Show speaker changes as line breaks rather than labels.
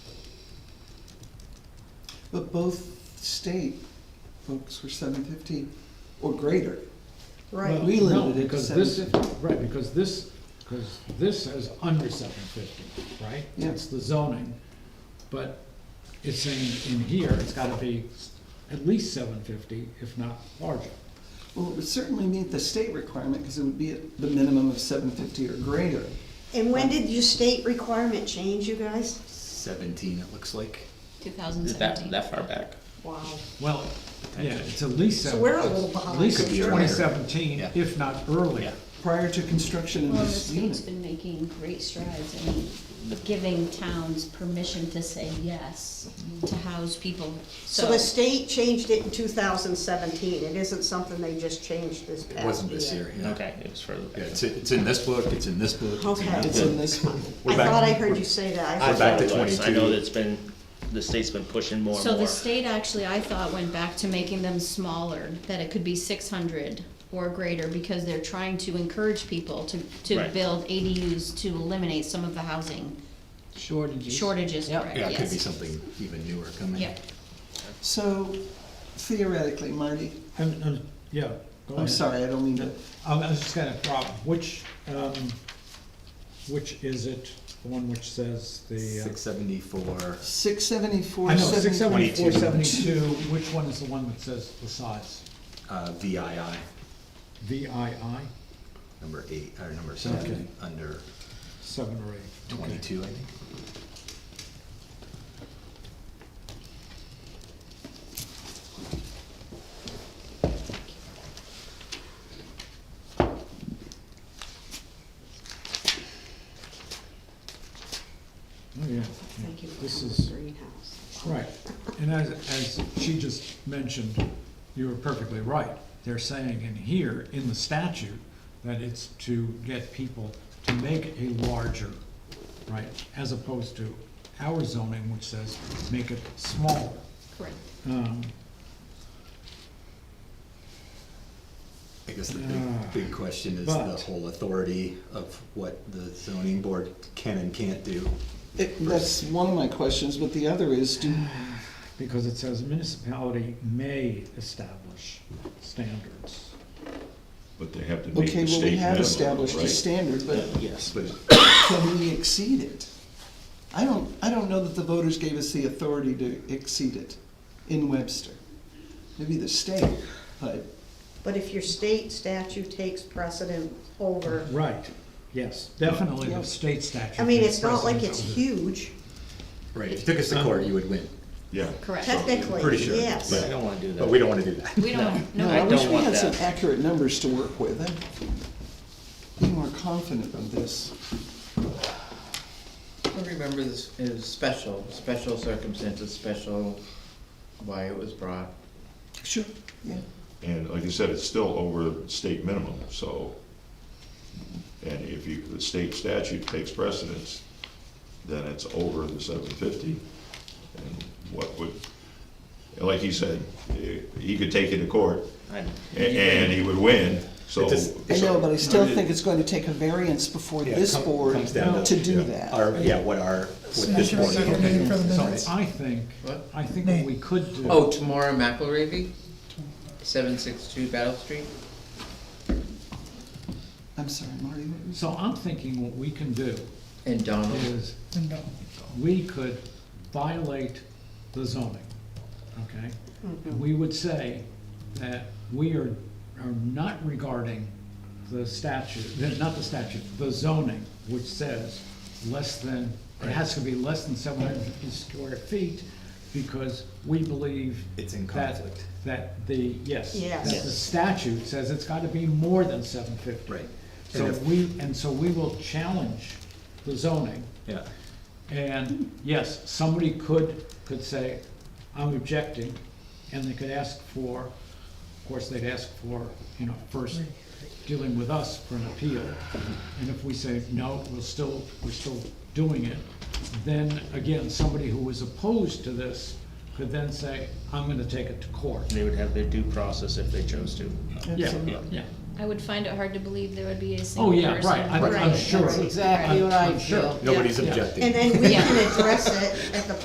But both state books were seven fifty or greater.
Right.
We
Well, no,
limited it to
because this-
750.
Right, because this, because this is under seven fifty, right?
Yeah.
It's the zoning, but it's saying in here, it's gotta be at least seven fifty, if not larger.
Well, it would certainly meet the state requirement because it would be at the minimum of seven fifty or greater.
And when did your state requirement change, you guys?
17, it looks like.
That,
2017.
that far back.
Wow.
Well, yeah, it's at least
So
seven.
we're a little
At
behind.
least
Could be earlier.
twenty seventeen,
Yeah.
if not earlier.
Prior to construction of
Well, the
this
state's
unit,
been making great strides in giving towns permission to say yes to house people,
So
so.
the state changed it in two thousand seventeen, it isn't something they just changed this past
It
year.
wasn't this year, yeah.
Okay, it was further back.
Yeah, it's, it's in this book, it's in this book. it's in
Okay.
that
it's
book.
in this one.
We're
I
back-
thought I heard you say that. I
We're back
thought-
to
It was. I
22.
know that it's been, the state's been pushing more and
So
more.
the state actually, I thought, went back to making them smaller, that it could be six hundred or greater, because they're trying to encourage people to, to
Right.
build ADUs to eliminate some of the housing
Shortages.
shortages, correct,
Yeah, it could be
yes.
something even newer coming.
Yep.
So theoretically, Marty,
And, and, yeah. go
I'm
ahead.
sorry, I don't mean to,
Um, I was just gonna, Rob, which, um, which is it, the one which says the? uh,
674.
six seventy-four,
I know, six
seventy.
seventy-four,
22.
seventy-two, which one is the one that says the size?
uh, VII,
VII,
number eight, or number seven, under
seven or eight? Okay.
22, I think.
Oh, yeah.
Thank you for
This
coming
is-
to Greenhouse.
Right, and as, as she just mentioned, you were perfectly right. They're saying in here, in the statute, that it's to get people to make a larger, right? As opposed to our zoning, which says make it smaller.
Correct.
Um,
I guess the
Ah.
big, big question is the
But-
whole authority of what the zoning board can and can't do.
It- That's one of my questions, but the other is, do,
Because it says municipality may establish standards.
But they have to meet
okay,
the
well,
state
we have
minimum,
established a
right?
standard, but
Yes.
But
can we exceed it? I don't, I don't know that the voters gave us the authority to exceed it in Webster. Maybe the state, but
But if your state statute takes precedent over,
Right, yes, definitely
Yeah.
the state statute.
I mean,
gives
it's not like
precedence
it's
over-
huge,
Right, if you took us
Uh-huh.
to court, you would win,
Yeah.
Correct.
pretty
technically,
sure,
yes.
I don't wanna do that.
but we don't wanna do that.
We don't,
no,
no,
I
I
wish
don't
we
want
had some
that.
accurate numbers to work with. I'd Be more confident of this.
Well, Remember, this is special, special circumstances, special why it was brought.
Sure. Yeah,
And like you said, it's still over state minimum, so. And if you, the state statute takes precedence, then it's over the seven fifty. And what would, and like he said, eh, he could take it to court
I-
a- and he would win, so.
It just-
I know, but I still
it-
think it's going to take a variance before
Yeah,
this
come-
board
comes down
to do
yeah,
that.
Our, yeah, what our, what this board
Second
can do.
reading for the minutes.
So I think,
What?
I think what we could do.
Oh, Tamara McElravy, seven six two Battle Street.
I'm sorry, Marty, what was-
So I'm thinking what we can do
And Donald,
is
And don't.
we could violate the zoning, okay? We would say that we are, are not regarding the statute, the- not the statute, the zoning, which says less than, it has to be less than seven hundred and fifty square feet, because we believe.
It's in
that-
conflict.
That the, yes.
Yes.
That the statute says it's gotta be more than seven fifty.
Right.
So
And if-
we, and so we will challenge the zoning.
Yeah.
And yes, somebody could, could say, I'm objecting, and they could ask for, of course, they'd ask for, you know, first dealing with us for an appeal. And if we say, no, we're still, we're still doing it, then again, somebody who was opposed to this could then say, I'm gonna take it to court.
They would have their due process if they chose to.
Yeah, yeah.
I would find it hard to believe there would be a
Oh,
single
yeah,
person.
right, I'm, I'm
Right.
sure.
That's
I'm-
exactly
I'm
what I
sure.
feel.
Nobody's
Yeah.
objecting.
And then we
Yeah.
can address it at the